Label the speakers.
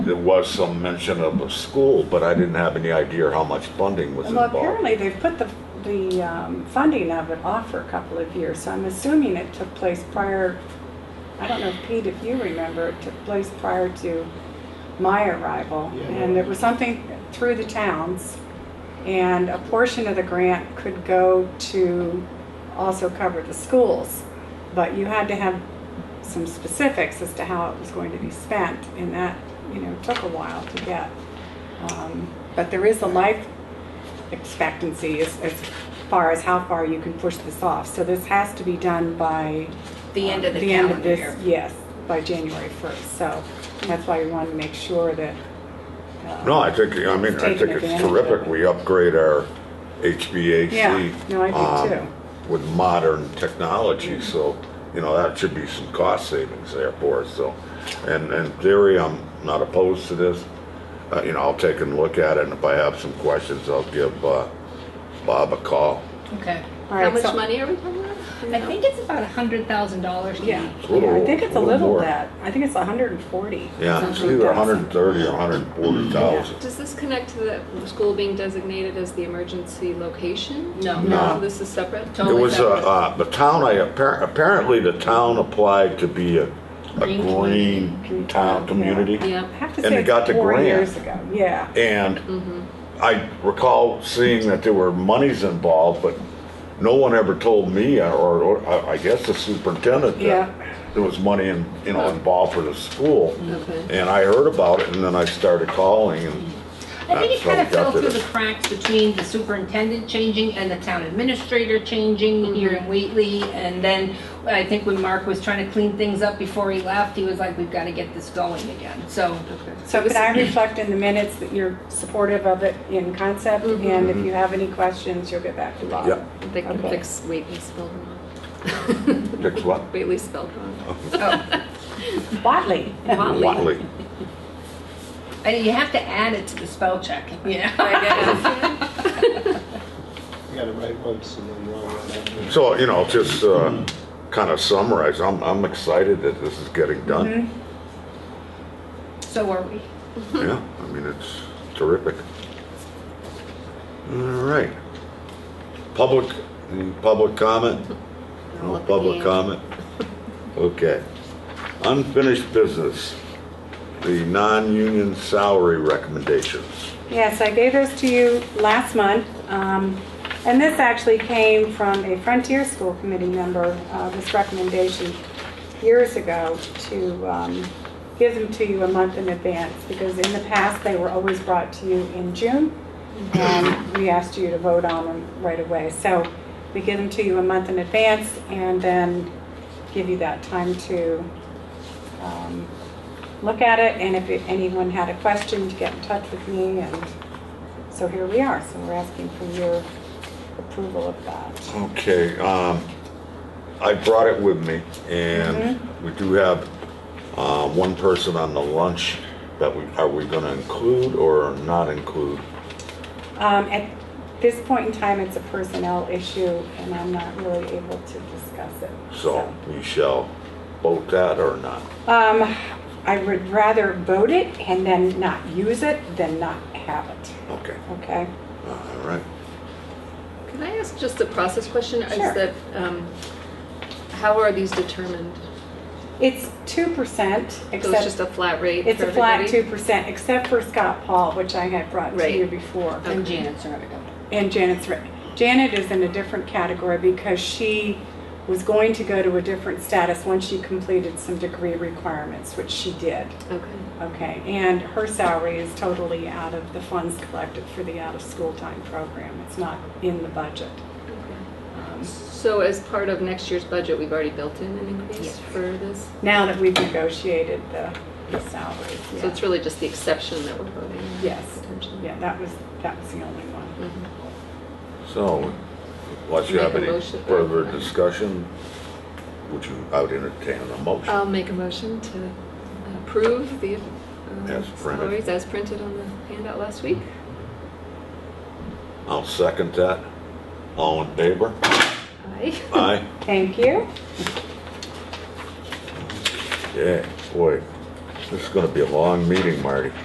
Speaker 1: There was some mention of a school, but I didn't have any idea how much funding was
Speaker 2: Well,
Speaker 1: involved.
Speaker 2: apparently they've put the, the um, funding of it off for a couple of years, so I'm assuming it took place prior, I don't know, Pete, if you remember, it took place prior to my arrival.
Speaker 3: Yeah.
Speaker 2: And it was something through the towns, and a portion of the grant could go to also cover the schools. But you had to have some specifics as to how it was going to be spent, and that, you know, took a while to get. Um, But there is a life expectancy as, as far as how far you can push this off. So this has to be done by.
Speaker 4: The end of the
Speaker 2: end of
Speaker 4: calendar
Speaker 2: this-
Speaker 4: year.
Speaker 2: Yes, by January first. So that's why we want to make sure that. uh,
Speaker 1: No, I think, I mean, I
Speaker 2: Taking
Speaker 1: think it's
Speaker 2: advantage of
Speaker 1: terrific.
Speaker 2: it.
Speaker 1: We upgrade our
Speaker 2: Yeah,
Speaker 1: HVAC.
Speaker 2: no, I do
Speaker 1: um,
Speaker 2: too.
Speaker 1: With modern technology, so, you know, that should be some cost savings there for us, so. And in theory, I'm not opposed to this. Uh, you know, I'll take and look at it, and if I have some questions, I'll give, uh, Bob a call.
Speaker 5: Okay.
Speaker 2: All
Speaker 4: How
Speaker 2: right,
Speaker 4: much
Speaker 2: so-
Speaker 4: money are we talking about?
Speaker 5: I think it's about a hundred thousand dollars to
Speaker 2: Yeah,
Speaker 5: me.
Speaker 1: It's a
Speaker 2: yeah, I
Speaker 1: little-
Speaker 2: think it's a
Speaker 1: little
Speaker 2: little
Speaker 1: more.
Speaker 2: bit. I think it's hundred and forty.
Speaker 1: Yeah, it's either a hundred and thirty or a hundred and forty thousand.
Speaker 6: Does this connect to the school being designated as the emergency location?
Speaker 5: No.
Speaker 1: No.
Speaker 6: This is separate?
Speaker 1: There
Speaker 5: Totally
Speaker 1: was a,
Speaker 5: separate.
Speaker 1: uh, the town, I, appar- apparently the town applied to be a, a
Speaker 5: Green
Speaker 1: green town community.
Speaker 2: I
Speaker 6: Yeah.
Speaker 2: have to
Speaker 1: And
Speaker 2: say
Speaker 1: they got
Speaker 2: it's
Speaker 1: the
Speaker 2: four
Speaker 1: grant.
Speaker 2: years ago, yeah.
Speaker 5: Mm-hmm.
Speaker 1: And I recall seeing that there were monies involved, but no one ever told me, uh, or, or I I guess the superintendent,
Speaker 2: Yeah.
Speaker 1: that there was money in, you know, involved for the school.
Speaker 5: Mm-hmm.
Speaker 6: Okay.
Speaker 1: And I heard about it, and then I started calling, and
Speaker 5: I think
Speaker 1: That's
Speaker 5: it
Speaker 1: how
Speaker 5: kind
Speaker 1: we got
Speaker 5: of
Speaker 1: to
Speaker 5: fell through the
Speaker 1: this.
Speaker 5: cracks between the superintendent changing and the town administrator changing here
Speaker 2: Mm-hmm.
Speaker 5: in Wheatley. And then I think when Mark was trying to clean things up before he left, he was like, we've got to get this going again. So
Speaker 2: So can I reflect in the minutes that you're supportive of it in concept?
Speaker 4: Mm-hmm.
Speaker 2: And if you have any questions, you'll get back to Bob.
Speaker 1: Mm-hmm. yeah,
Speaker 6: They can
Speaker 2: Okay.
Speaker 6: fix Whately spelled wrong.
Speaker 1: fix what?
Speaker 6: Whately spelled wrong.
Speaker 2: Watley.
Speaker 6: Whatley.
Speaker 1: Watley.
Speaker 5: and you have to add it to the spell check. Yeah.
Speaker 6: I guess.
Speaker 3: You got it right once and then wrong one after.
Speaker 1: So, you know, just, uh, kind of summarize, I'm, I'm excited that this is getting done.
Speaker 5: So are we.
Speaker 1: Yeah, I mean, it's terrific. All right. Public, any public comment?
Speaker 4: I'll
Speaker 1: No
Speaker 4: look at
Speaker 1: public
Speaker 4: you.
Speaker 1: comment? Okay. Unfinished business, the non-union salary recommendations.
Speaker 2: Yes, I gave those to you last month. um, And this actually came from a Frontier School Committee member, uh, this recommendation years ago to um, give them to you a month in advance because in the past, they were always brought to you in June and we asked you to vote on them right away. So we give them to you a month in advance and then give you that time to um, look at it, and if anyone had a question, to get in touch with me, and so here we are, so we're asking for your approval of that.
Speaker 1: Okay, um, I brought it with me and
Speaker 6: Mm-hmm.
Speaker 1: we do have, uh, one person on the lunch that we, are we gonna include or not include?
Speaker 2: Um, At this point in time, it's a personnel issue, and I'm not really able to discuss it.
Speaker 1: So we shall vote that or not.
Speaker 2: Um, I would rather vote it and then not use it than not have it,
Speaker 1: Okay,
Speaker 2: okay?
Speaker 1: all right.
Speaker 6: Can I ask just a process question? Is
Speaker 2: Sure.
Speaker 6: that, um, how are these determined?
Speaker 2: It's 2%, except...
Speaker 6: So it's just a flat rate
Speaker 2: It's
Speaker 6: for
Speaker 2: a flat
Speaker 6: everybody?
Speaker 2: two percent, except for Scott Paul, which I had brought to
Speaker 6: Right.
Speaker 2: you before.
Speaker 5: And Janet's already got
Speaker 2: And Janet's, right. Janet is in a different category because she was going to go to a different status once she completed some degree requirements, which she did.
Speaker 6: Okay.
Speaker 2: Okay, and her salary is totally out of the funds collected for the out-of-school time program. It's not in the budget. Um,
Speaker 6: So as part of next year's budget, we've already built in an increase for this?
Speaker 2: Now that we've negotiated the the salaries,
Speaker 6: So it's
Speaker 2: yeah.
Speaker 6: really just the exception that we're voting on?
Speaker 2: Yes,
Speaker 6: Potentially.
Speaker 2: yeah, that was, that was the only one.
Speaker 1: So, unless you have
Speaker 6: Make a
Speaker 1: any
Speaker 6: motion.
Speaker 1: further discussion, would you, I would entertain a motion.
Speaker 6: I'll make a motion to approve the um,
Speaker 1: As printed.
Speaker 6: salaries as printed on the handout last week.
Speaker 1: I'll second that. All in favor?
Speaker 6: Aye.
Speaker 1: Aye.
Speaker 2: Thank you.
Speaker 1: Yeah, boy. This is gonna be a long meeting, Marty.